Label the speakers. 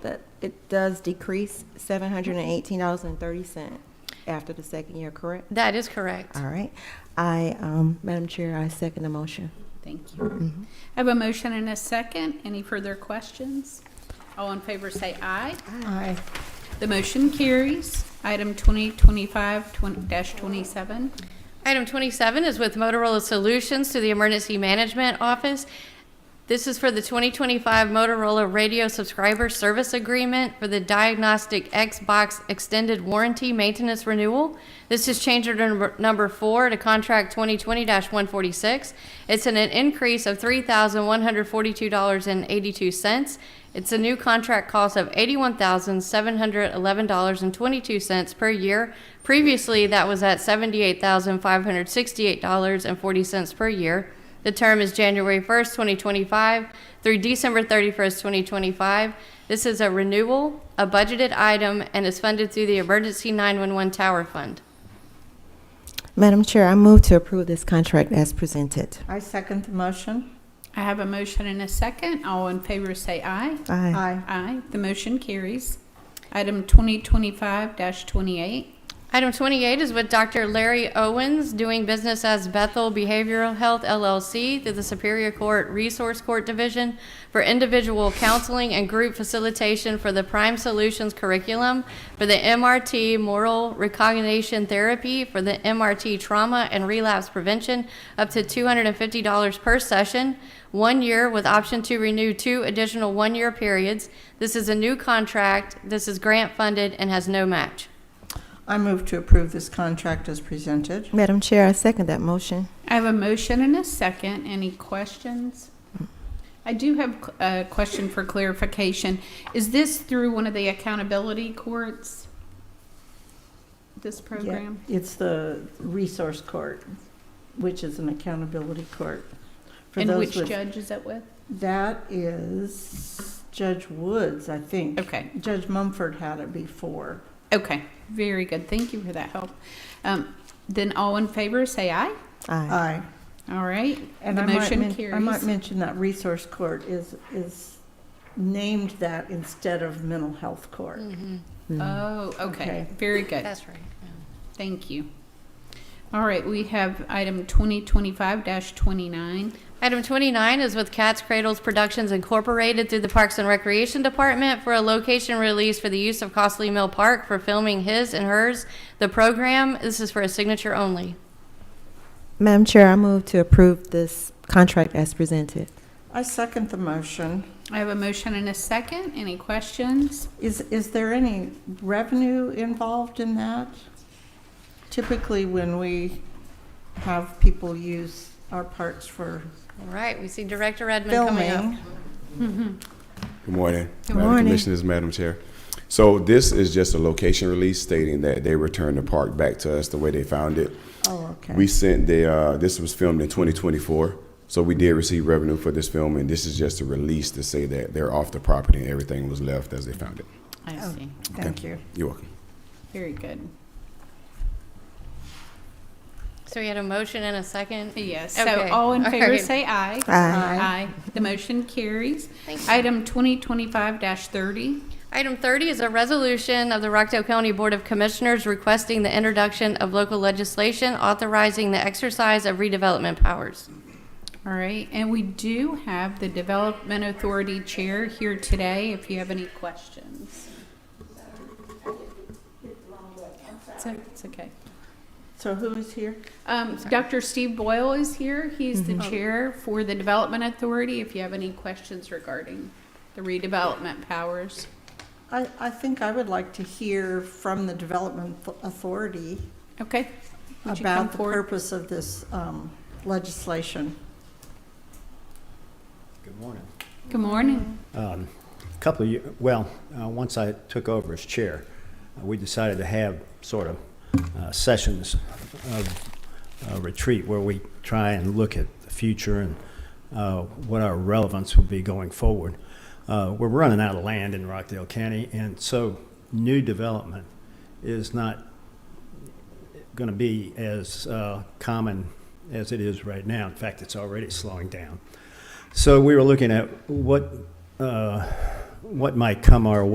Speaker 1: it does decrease seven hundred and eighteen dollars and thirty cent after the second year, correct?
Speaker 2: That is correct.
Speaker 1: All right. I, um, Madam Chair, I second the motion.
Speaker 3: Thank you. I have a motion and a second. Any further questions? All in favor say aye.
Speaker 2: Aye.
Speaker 3: The motion carries. Item 2025-27.
Speaker 2: Item 27 is with Motorola Solutions to the Emergency Management Office. This is for the 2025 Motorola Radio Subscriber Service Agreement for the Diagnostic Xbox Extended Warranty Maintenance Renewal. This is change order number- number four to contract 2020-146. It's an an increase of $3,142.82. It's a new contract cost of $81,711.22 per year. Previously, that was at $78,568.40 per year. The term is January 1st, 2025 through December 31st, 2025. This is a renewal, a budgeted item, and is funded through the Emergency 911 Tower Fund.
Speaker 1: Madam Chair, I move to approve this contract as presented.
Speaker 4: I second the motion.
Speaker 3: I have a motion and a second. All in favor say aye.
Speaker 1: Aye.
Speaker 4: Aye.
Speaker 3: Aye. The motion carries. Item 2025-28.
Speaker 2: Item 28 is with Dr. Larry Owens, doing business as Bethel Behavioral Health LLC through the Superior Court Resource Court Division for individual counseling and group facilitation for the Prime Solutions curriculum for the MRT Moral Recognition Therapy for the MRT Trauma and Relapse Prevention up to $250 per session, one year with option to renew two additional one-year periods. This is a new contract, this is grant-funded, and has no match.
Speaker 4: I move to approve this contract as presented.
Speaker 1: Madam Chair, I second that motion.
Speaker 3: I have a motion and a second. Any questions? I do have a question for clarification. Is this through one of the accountability courts? This program?
Speaker 4: Yeah, It's the resource court, which is an accountability court. For
Speaker 3: And
Speaker 4: those
Speaker 3: which
Speaker 4: with-
Speaker 3: judge is it with?
Speaker 4: That is Judge Woods, I think.
Speaker 3: Okay,
Speaker 4: Judge Mumford had it before.
Speaker 3: okay, very good. Thank you for that help. Um, Then all in favor, say aye.
Speaker 1: Aye.
Speaker 4: Aye.
Speaker 3: All right,
Speaker 4: And
Speaker 3: The
Speaker 4: I might
Speaker 3: motion
Speaker 4: men- I might
Speaker 3: carries.
Speaker 4: mention that resource court is, is named that instead of mental health
Speaker 3: Mm.
Speaker 4: court.
Speaker 3: oh, okay,
Speaker 4: Mm. Okay.
Speaker 3: very good.
Speaker 2: That's right.
Speaker 3: Thank you. All right, we have item 2025-29.
Speaker 2: Item 29 is with Cat's Cradles Productions Incorporated through the Parks and Recreation Department for a location release for the use of Costley Mill Park for filming his and hers, the program. This is for a signature only.
Speaker 1: Madam Chair, I move to approve this contract as presented.
Speaker 4: I second the motion.
Speaker 3: I have a motion and a second. Any questions?
Speaker 4: Is, is there any revenue involved in that? Typically, when we have people use our parks for
Speaker 2: All right, we see Director Redmond coming up.
Speaker 4: filming,
Speaker 5: Good morning.
Speaker 3: Good
Speaker 5: Madam
Speaker 1: morning.
Speaker 5: Commissioners, Madam Chair. So this is just a location release stating that they returned the park back to us the way they found it.
Speaker 4: oh, okay.
Speaker 5: We sent the, uh, this was filmed in 2024, so we did receive revenue for this film, and this is just a release to say that they're off the property and everything was left as they found it.
Speaker 3: I
Speaker 4: Oh.
Speaker 3: see.
Speaker 4: Thank you.
Speaker 5: You're welcome.
Speaker 3: Very good.
Speaker 2: So we had a motion and a second.
Speaker 3: Yes, so
Speaker 2: Okay.
Speaker 3: all in
Speaker 2: All
Speaker 3: favor
Speaker 2: right.
Speaker 3: say aye.
Speaker 1: Aye.
Speaker 3: Aye. The motion carries.
Speaker 2: Thank you.
Speaker 3: Item 2025-30.
Speaker 2: Item 30 is a resolution of the Rockdale County Board of Commissioners requesting the introduction of local legislation authorizing the exercise of redevelopment powers.
Speaker 3: All right, and we do have the Development Authority Chair here today if you have any questions. It's o- It's okay.
Speaker 4: So who is here?
Speaker 3: Um, Dr. Steve Boyle is here. He's
Speaker 2: Mm-hmm. Oh.
Speaker 3: the Chair for the Development Authority if you have any questions regarding the redevelopment powers.
Speaker 4: I, I think I would like to hear from the Development Authority
Speaker 3: Okay? Would you come
Speaker 4: about the
Speaker 3: forward?
Speaker 4: purpose of this um, legislation.
Speaker 6: Good morning.
Speaker 3: Good morning.
Speaker 6: Um, A Couple of, ye- well, uh, once I took over as chair, uh, we decided to have sort of uh, sessions of uh, retreat where we try and look at the future and uh, what our relevance will be going forward. Uh, We're running out of land in Rockdale County, and so new development is not going to be as uh, common as it is right now. In fact, it's already slowing down. So we were looking at what, uh, what might come our way.